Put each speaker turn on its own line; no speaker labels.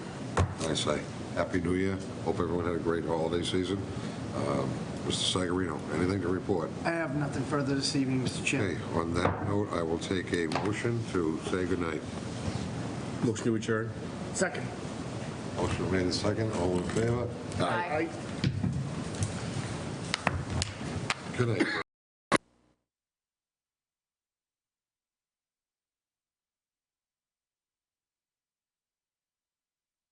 I say? Happy New Year. Hope everyone had a great holiday season. Um, Mr. Sagarino, anything to report?
I have nothing further this evening, Mr.
Okay,
Chairman.
on that note, I will take a motion to say goodnight.
Motion to adjourn?
Second.
Motion made and second. All in favor?
Aye.
Good night.